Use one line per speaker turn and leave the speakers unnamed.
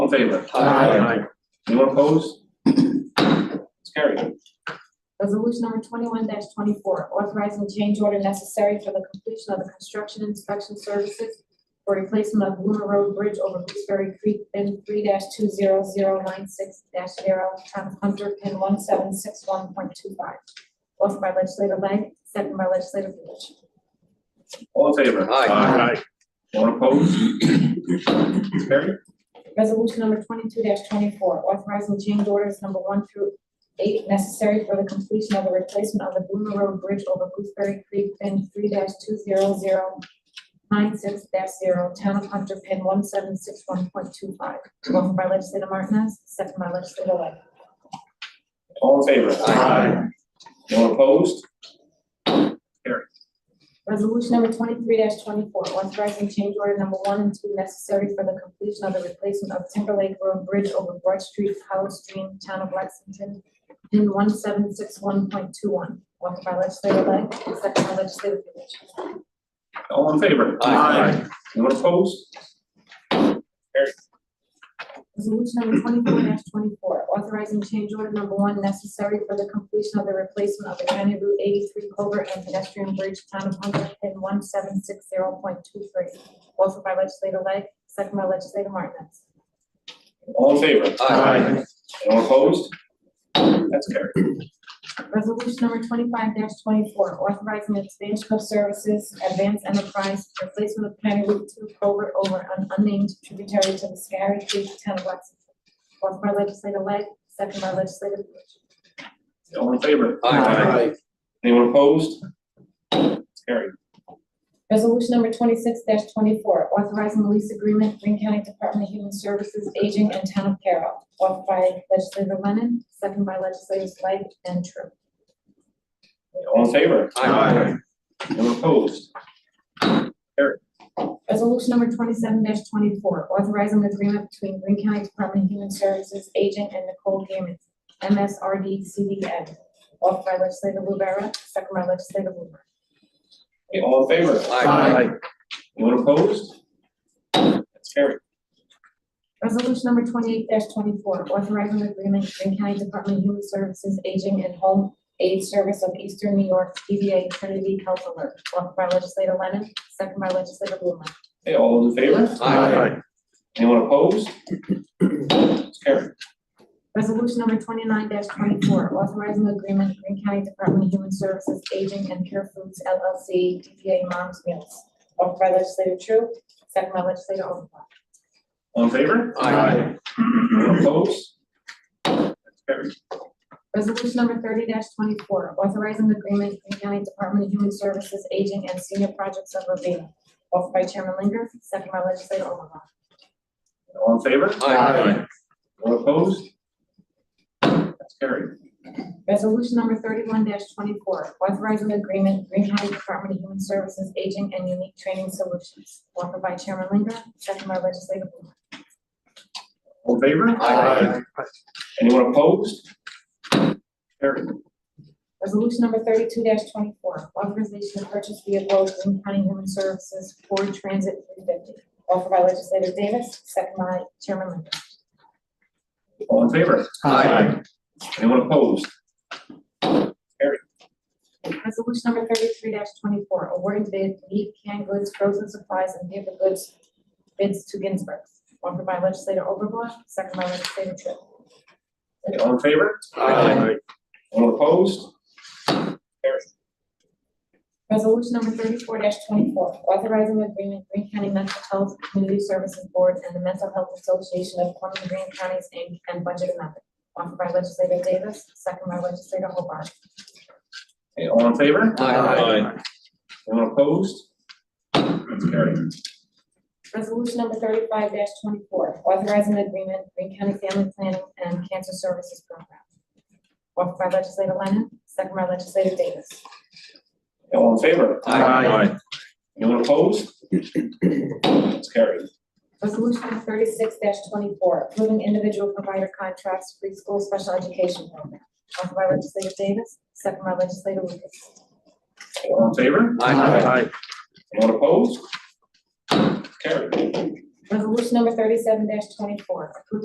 favor?
Aye.
Anyone opposed? It's carried.
Resolution number twenty-one twenty-four, authorizing change order necessary for the completion of the construction inspection services for replacement of Luna Road Bridge over Gooseberry Creek, bin three two zero zero nine six dash zero, town of Hunter, pin one seven six one point two five. Offered by legislator Lang, second by legislator Lewis.
All in favor?
Aye.
Anyone opposed? It's carried.
Resolution number twenty-two twenty-four, authorizing change orders number one through eight necessary for the completion of the replacement of the Bloomer Road Bridge over Gooseberry Creek, pin three two zero zero nine six zero, town of Hunter, pin one seven six one point two five. Offered by legislator Martinez, second by legislator Lang.
All in favor?
Aye.
Anyone opposed?
Resolution number twenty-three twenty-four, authorizing change order number one and two necessary for the completion of the replacement of Timberlake Road Bridge over Broad Street, Hollow Stream, Town of Lexington, in one seven six one point two one, offered by legislator Lang, second by legislator Lewis.
All in favor?
Aye.
Anyone opposed?
Resolution number twenty-four twenty-four, authorizing change order number one necessary for the completion of the replacement of the County Route eighty-three culvert and pedestrian bridge, Town of Hunter, in one seven six zero point two three, offered by legislator Lang, second by legislator Martinez.
All in favor? Anyone opposed? That's carried.
Resolution number twenty-five twenty-four, authorizing expansion of services, advanced enterprise, replacement of County Route two culvert over an unnamed tributary to the Scary Creek, town of Lexington. Offered by legislator Lang, second by legislator Lewis.
All in favor?
Aye.
Anyone opposed? It's carried.
Resolution number twenty-six twenty-four, authorizing lease agreement, Green County Department of Human Services, Aging and Town of Carroll. Offered by legislator Lennon, second by legislators Lang and Tru.
All in favor?
Aye.
Anyone opposed?
Resolution number twenty-seven twenty-four, authorizing an agreement between Green County Department of Human Services agent and Nicole Gammon, MSRD CDN, offered by legislator Rivera, second by legislator Blumer.
Okay, All in favor?
Aye.
Anyone opposed? That's carried.
Resolution number twenty-eight twenty-four, authorizing an agreement between County Department of Human Services Aging and Home Aid Service of Eastern New York, DBA Trinity Health Alert, offered by legislator Lennon, second by legislator Blumer.
Okay, all in favor? Anyone opposed? It's carried.
Resolution number twenty-nine twenty-four, authorizing agreement with Green County Department of Human Services Aging and Care Foods LLC, DBA Moms Meals. Offered by legislator Tru, second by legislator Overblock.
All in favor?
Aye.
Anyone opposed? That's carried.
Resolution number thirty twenty-four, authorizing agreement with Green County Department of Human Services Aging and Senior Projects of Ravenna. Offered by Chairman Linger, second by legislator Overblock.
All in favor?
Aye.
Anyone opposed? That's carried.
Resolution number thirty-one twenty-four, authorizing agreement, Green County Department of Human Services Aging and Unique Training Solutions, offered by Chairman Linger, second by legislator Blumer.
All in favor?
Aye.
Anyone opposed? Carried.
Resolution number thirty-two twenty-four, authorization to purchase vehicle Green County Human Services Ford Transit three fifty, offered by legislator Davis, second by Chairman Linger.
All in favor?
Aye.
Anyone opposed?
Resolution number thirty-three twenty-four, awarding bid meat, canned goods, frozen supplies, and paper goods bids to Ginsburg, offered by legislator Overblock, second by legislator Tripp.
Okay, All in favor? Anyone opposed?
Resolution number thirty-four twenty-four, authorizing agreement Green County Mental Health Community Services Board and the Mental Health Association of Columbia Green Counties, Inc., and budget amendment, offered by legislator Davis, second by legislator Hobart.
Okay, All in favor?
Aye.
Anyone opposed? That's carried.
Resolution number thirty-five twenty-four, authorizing agreement Green County Family Planning and Cancer Services Program, offered by legislator Lennon, second by legislator Davis.
Okay, All in favor?
Aye.
Anyone opposed? That's carried.
Resolution number thirty-six twenty-four, approving individual provider contracts for preschool special education program. Offered by legislator Davis, second by legislator Lucas.
Okay, All in favor? Anyone opposed? Carried.
Resolution number thirty-seven twenty-four, approving